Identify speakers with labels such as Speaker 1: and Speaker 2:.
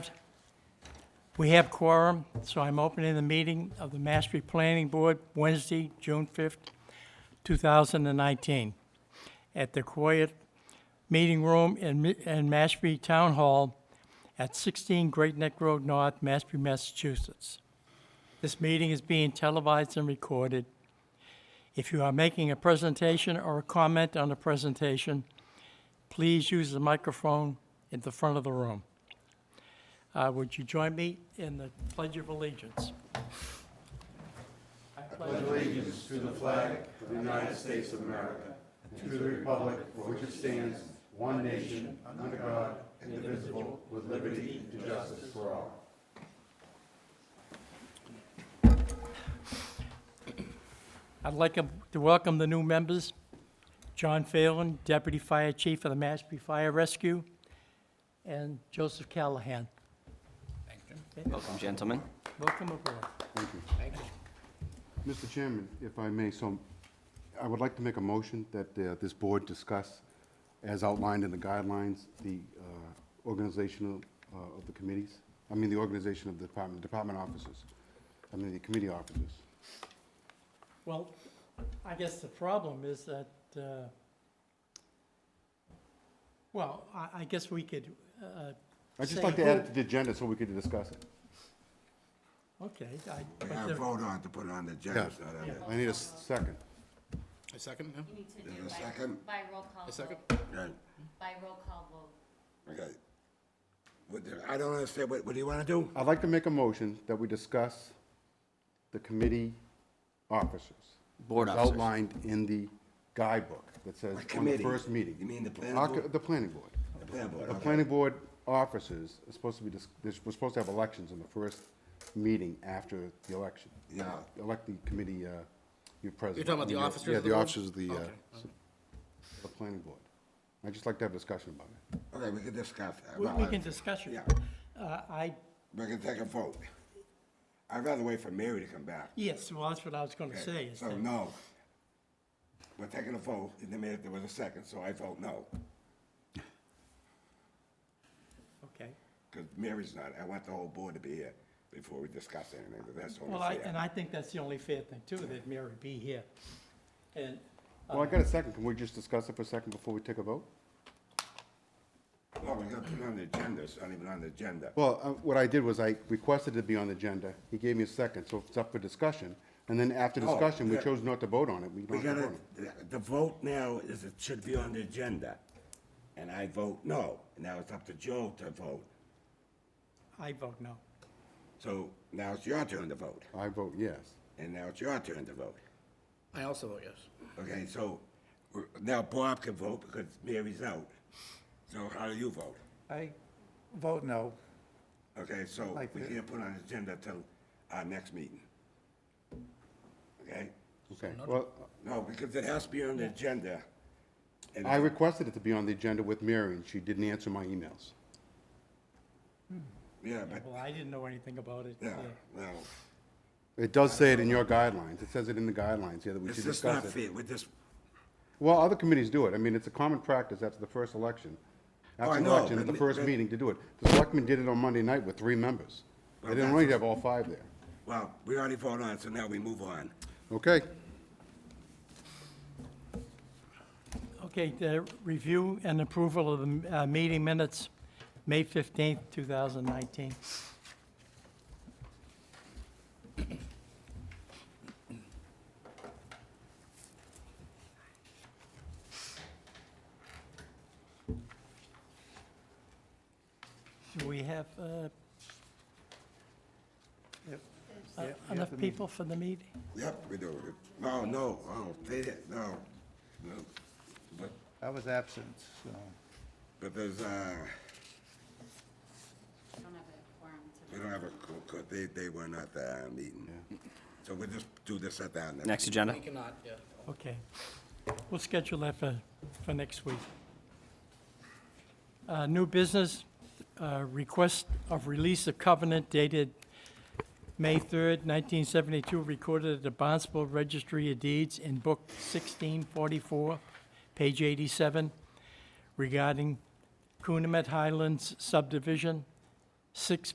Speaker 1: We have quorum, so I'm opening the meeting of the Mashpee Planning Board Wednesday, June 5th, 2019, at the Quiet Meeting Room in Mi- in Mashpee Town Hall at 16 Great Neck Road North, Mashpee, Massachusetts. This meeting is being televised and recorded. If you are making a presentation or a comment on a presentation, please use the microphone at the front of the room. Uh, Would you join me in the Pledge of Allegiance? I'd like to welcome the new members, John Phelan, Deputy Fire Chief of the Mashpee Fire Rescue, and Joseph Callahan.
Speaker 2: Welcome, gentlemen.
Speaker 1: Welcome aboard.
Speaker 3: Mr. Chairman, if I may, so I would like to make a motion that uh, this board discuss, as outlined in the guidelines, the uh, organizational uh, of the committees, I mean, the organization of the department, department officers, I mean, the committee officers.
Speaker 1: Well, I guess the problem is that, uh, well, I I guess we could, uh,
Speaker 3: I'd just
Speaker 1: Say
Speaker 3: like to add
Speaker 1: who-
Speaker 3: it to the agenda so we could discuss it.
Speaker 1: okay. I- but
Speaker 4: Yeah,
Speaker 1: the-
Speaker 4: vote on it to put it on the agenda, so that,
Speaker 3: I need a second.
Speaker 5: A second now?
Speaker 6: You need to
Speaker 4: Is
Speaker 6: do
Speaker 4: there a
Speaker 6: by,
Speaker 4: second?
Speaker 6: by roll call
Speaker 5: A second?
Speaker 6: vote,
Speaker 4: right,
Speaker 6: by roll call vote.
Speaker 4: okay. What the- I don't understand, what, what do you wanna do?
Speaker 3: I'd like to make a motion that we discuss the committee officers.
Speaker 2: Board
Speaker 3: as
Speaker 2: officers.
Speaker 3: Outlined in the guidebook that says on
Speaker 4: What
Speaker 3: the
Speaker 4: committee?
Speaker 3: first meeting.
Speaker 4: You mean the planning
Speaker 3: Our-
Speaker 4: board?
Speaker 3: The planning board.
Speaker 4: The plan board,
Speaker 3: The
Speaker 4: okay.
Speaker 3: planning board officers are supposed to be, dis- they're we're supposed to have elections in the first meeting after the election.
Speaker 4: Yeah.
Speaker 3: Elect the committee, uh, your president.
Speaker 5: You're talking about the officers of the
Speaker 3: Yeah, the
Speaker 5: board?
Speaker 3: officers of the, uh,
Speaker 5: Okay.
Speaker 3: s- the planning board. I'd just like to have a discussion about it.
Speaker 4: Okay, we can discuss. that.
Speaker 1: We
Speaker 4: Well,
Speaker 1: we
Speaker 4: I-
Speaker 1: can discuss it.
Speaker 4: Yeah.
Speaker 1: Uh, I,
Speaker 4: We can take a vote. I'd rather wait for Mary to come back.
Speaker 1: yes, well, that's what I was going to say. is
Speaker 4: So,
Speaker 1: that-
Speaker 4: no. We're taking a vote, and then there was a second, so I vote no,
Speaker 1: Okay.
Speaker 4: because Mary's not, I want the whole board to be here before we discuss anything, but that's
Speaker 1: Well,
Speaker 4: only
Speaker 1: I, and
Speaker 4: fair.
Speaker 1: I think that's the only fair thing too, that Mary be here. And,
Speaker 3: Well, I got a second. Can we just discuss it for a second before we take a vote?
Speaker 4: No, we're gonna put it on the agenda, it's not even on the agenda.
Speaker 3: Well, uh, what I did was I requested it be on the agenda. He gave me a second, so it's up for discussion. And then after
Speaker 4: Oh,
Speaker 3: discussion, we
Speaker 4: yeah.
Speaker 3: chose not to vote on it. We
Speaker 4: We
Speaker 3: don't have to vote
Speaker 4: gotta,
Speaker 3: on it.
Speaker 4: the vote now is it should be on the agenda, and I vote no. Now it's up to Joe to vote,
Speaker 1: I vote no.
Speaker 4: so now it's your turn to vote,
Speaker 3: I vote yes.
Speaker 4: and now it's your turn to vote.
Speaker 5: I also vote yes.
Speaker 4: Okay, so we're- now Bob can vote because Mary's out. So how do you vote?
Speaker 7: I vote no.
Speaker 4: Okay, so
Speaker 7: Like
Speaker 4: we
Speaker 7: the-
Speaker 4: can't put on the agenda till our next meeting. Okay?
Speaker 3: Okay, well,
Speaker 4: No, because it has to be on the agenda. And
Speaker 3: I requested it to be on the agenda with Mary, and she didn't answer my emails.
Speaker 4: Yeah, but,
Speaker 1: Well, I didn't know anything about it.
Speaker 4: yeah,
Speaker 1: yeah.
Speaker 4: well,
Speaker 3: It does say it in your guidelines. It says it in the guidelines, yeah, that we
Speaker 4: it's
Speaker 3: should
Speaker 4: just not
Speaker 3: discuss it.
Speaker 4: fair with this,
Speaker 3: Well, other committees do it. I mean, it's a common practice after the first election.
Speaker 4: Oh, I
Speaker 3: After the
Speaker 4: know,
Speaker 3: election, at
Speaker 4: but
Speaker 3: the
Speaker 4: me-
Speaker 3: first
Speaker 4: but-
Speaker 3: meeting to do it. The selectmen did it on Monday night with three members. They
Speaker 4: Well,
Speaker 3: didn't
Speaker 4: that's-
Speaker 3: really have all five there.
Speaker 4: well, we already voted on, it, so now we move on.
Speaker 3: Okay,
Speaker 1: Okay, the review and approval of the uh, meeting minutes, May 15th, 2019. Do we have uh, enough people for the meeting?
Speaker 4: Yep, we do. it. No, no, oh, they, didn't- no, no. But,
Speaker 7: I was absent, so.
Speaker 4: but there's, uh,
Speaker 6: I don't have a quorum to.
Speaker 4: we don't have a, co- co- they, they were not there, uh, meeting. So we'll just do this at the end.
Speaker 2: Next agenda.
Speaker 5: We cannot, yeah.
Speaker 1: Okay. We'll schedule that for, for next week. Uh, New business, uh, request of release of covenant dated May 3rd, 1972, recorded at the Barnstable Registry of Deeds in Book 1644, page 87, regarding Coonamet Highlands subdivision, 6